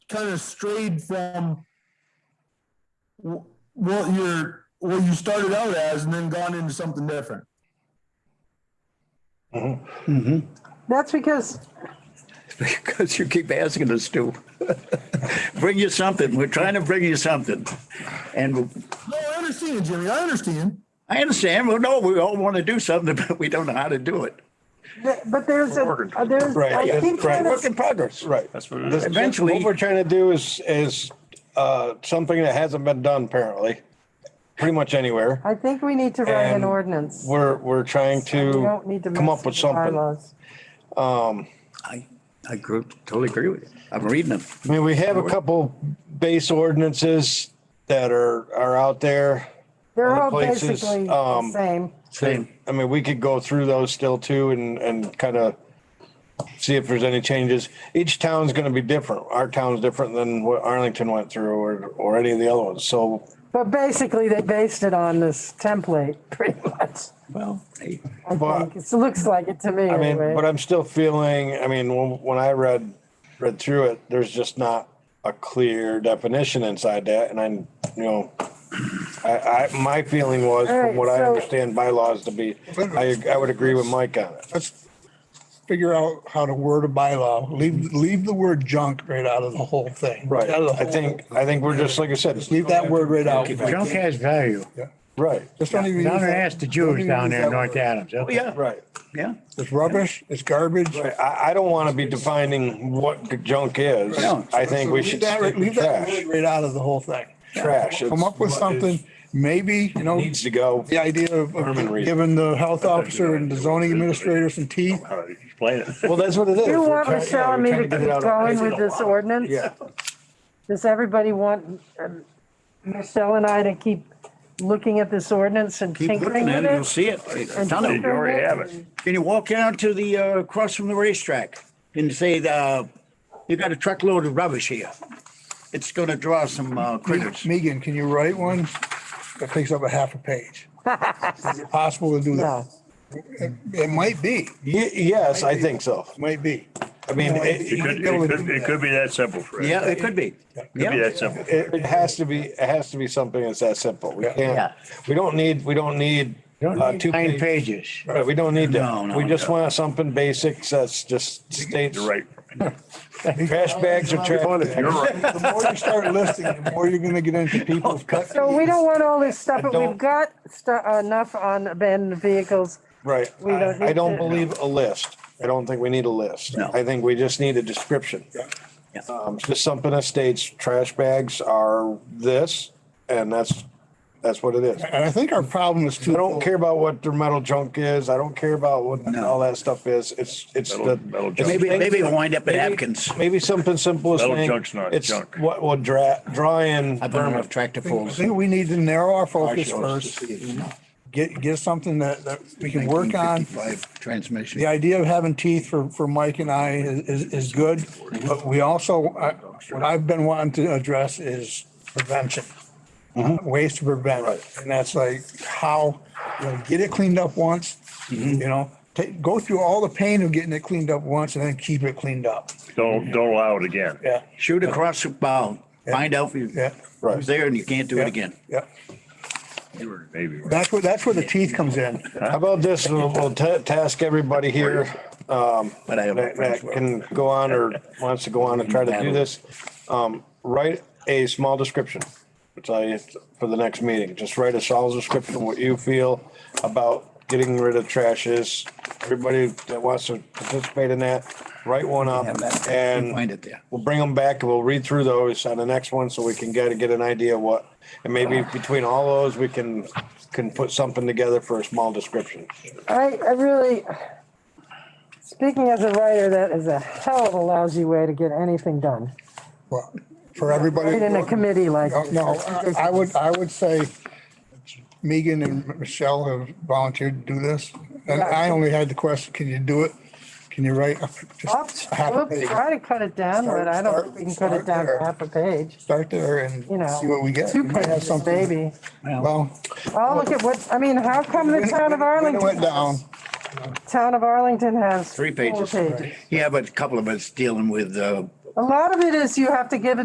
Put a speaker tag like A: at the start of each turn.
A: kind of strayed from wh- what you're, what you started out as and then gone into something different.
B: That's because,
C: Because you keep asking us to. Bring you something. We're trying to bring you something. And
A: No, I understand, Jimmy. I understand.
C: I understand, well, no, we all want to do something, but we don't know how to do it.
B: but there's a, uh, there's,
D: Right,
B: I
D: that's
B: think
D: correct.
B: that
C: Work
B: is-
C: in progress.
D: Right.
E: That's what it
D: This-
E: is.
C: Eventually-
D: What we're trying to do is, is, uh, something that hasn't been done apparently, pretty much anywhere.
B: I think we need to write an
D: And
B: ordinance.
D: We're, we're trying
B: We don't need
D: to
B: to
D: come
B: mess
D: up with
B: the
D: something. I
B: bylaws.
C: I, I agree- totally agree with you. I'm reading them.
D: mean, we have a couple base ordinances that are, are out there.
B: They're
D: Other
B: all
D: places,
B: basically the
D: um,
B: same.
C: Same.
D: I mean, we could go through those still too and, and kind of see if there's any changes. Each town's gonna be different. Our town's different than what Arlington went through or, or any of the other ones. So
B: But basically, they based it on this template, pretty much.
C: Well, hey,
B: I
D: But-
B: think, it looks like it to me
D: I mean,
B: anyway.
D: but I'm still feeling, I mean, when, when I read, read through it, there's just not a clear definition inside that. And I'm, you know, I, I, my feeling was
B: All right,
D: from what I
B: so-
D: understand bylaws to be, I, I would agree with Mike on it.
F: let's figure out how to word a bylaw. Leave, leave the word junk right out of the whole thing.
D: Right.
F: Out of the
D: I
F: whole-
D: think, I think we're just, like I said,
F: Leave that word right out.
G: Junk has value.
D: right.
F: Just don't even.
G: Down
F: use
G: there,
F: that-
G: ask the
F: don't
G: Jews
F: even
G: down
F: use
G: there
F: that
G: in North
F: word.
G: Adams.
C: oh, yeah,
D: Right.
C: yeah.
F: It's rubbish, it's garbage.
D: Right. I, I don't want to be defining what junk is.
C: No.
D: I think we
F: Leave
D: should
F: that-
D: stick to
F: Leave that
D: trash.
F: word right out of the whole thing.
D: Trash.
F: Come up with
D: It's-
F: something, maybe, you know,
D: Needs to go.
F: the idea of of
E: Herman Reed.
F: giving the health officer and the zoning administrator some teeth.
E: How to Explain it.
D: Well, that's what it is.
B: You
D: We're
B: want
D: trying- yeah,
B: Michelle and
D: we're
B: me to keep
D: trying get it out of-
B: going with this ordinance?
D: Yeah.
B: Does everybody want um, Michelle and I to keep looking at this ordinance and
C: Keep
B: tinkering
C: looking at
B: with
C: it, you'll
B: it?
C: see it. A
B: And
C: ton of
E: You
C: them.
E: already have it.
C: Can you walk down to the, uh, across from the racetrack and say, uh, you got a truckload of rubbish here? It's gonna draw some uh, critters.
F: Megan, can you write one that takes up a half a page? Is it possible to do that?
B: No.
F: It might be,
D: Ye- Yes, I think so.
F: might be.
D: I mean,
E: It
D: it,
E: could, it could, it could be that simple, Fred.
C: Yeah, it could be.
E: Could be
C: Yeah,
E: that simple.
D: it it has to be, it has to be something that's that simple. We
C: Yeah.
D: can't, we don't need, we don't need, uh, two
G: Nine
D: pages.
G: pages.
D: Right, we don't need
C: No,
D: that.
C: no,
D: We just
E: no.
D: want something basic that's just states.
E: You're right.
D: Trash bags are trash.
E: You're
D: bags.
E: right.
F: The more you start listing, the more you're gonna get into people cutting.
B: So we don't want all this stuff, but we've
D: don't-
B: got stu- enough on abandoned vehicles.
D: Right.
B: We don't
D: I I
B: need
D: don't
B: to-
D: believe a list. I don't think we need a list.
C: No.
D: I think we just need a description.
C: Yeah.
D: Um, just something that states trash bags are this and that's, that's what it is.
F: And I think our problem is
D: I
F: too.
D: don't care about what their metal junk is. I don't care about what all that stuff is. It's, it's
E: Metal-
D: the.
E: metal
D: it's
E: junk.
C: maybe,
D: things-
C: maybe it'll wind up in
D: maybe-
C: napkins.
D: Maybe something simple as
E: Metal
D: saying.
E: junk's not
D: it's
E: junk.
D: What will dry, dry and
C: I've been on tractor
F: I
C: pulls.
F: think we need to narrow our focus
C: Marshall's.
F: first. Get, get something that, that we can work on.
C: 1955 Transmission.
F: The idea of having teeth for, for Mike and I is, is, is good. But we also, I- what I've been wanting to address is prevention. Ways to prevent it. And that's like how, you know, get it cleaned up once, you know, take, go through all the pain of getting it cleaned up once and then keep it cleaned up.
E: Don't, don't allow it again.
F: Yeah,
C: Shoot across the bow, find out who-
F: yeah.
C: who's there and you can't do it again.
F: Yeah.
E: You were maybe right.
F: That's where, that's where the teeth comes in.
D: How about this? We'll, we'll ta- task everybody here, um,
C: But I have
D: that,
C: friends
D: that
C: who are-
D: can go on or wants to go on and try to do this. Um, write a small description, which I, for the next meeting, just write a small description of what you feel about getting rid of trashes. Everybody that wants to participate in that, write one up
C: Have that.
D: and
C: Find it there.
D: we'll bring them back and we'll read through those on the next one so we can get, get an idea of what, and
C: Uh.
D: maybe between all those, we can, can put something together for a small description.
B: I, I really, speaking as a writer, that is a hell of a lousy way to get anything done.
F: Well, For everybody.
B: Right in a committee like.
F: No, no, I- I would, I would say Megan and Michelle have volunteered to do this. And I only had the question, can you do it? Can you write? a-
B: Oops,
F: just a half a
B: oops,
F: page?
B: Try to cut it down, but I don't think we can cut it down to half a page,
F: Start there and
B: you know.
F: see what we get.
B: Two
F: We might have
B: pages,
F: something.
B: maybe.
F: Well.
B: Oh, look at what, I mean, how come the town of
F: when it
B: Arlington?
F: Went down.
B: Town of Arlington has.
C: Three
B: four
C: pages. Yeah, but a couple of us dealing with, uh,
B: A lot of it is you have to give it.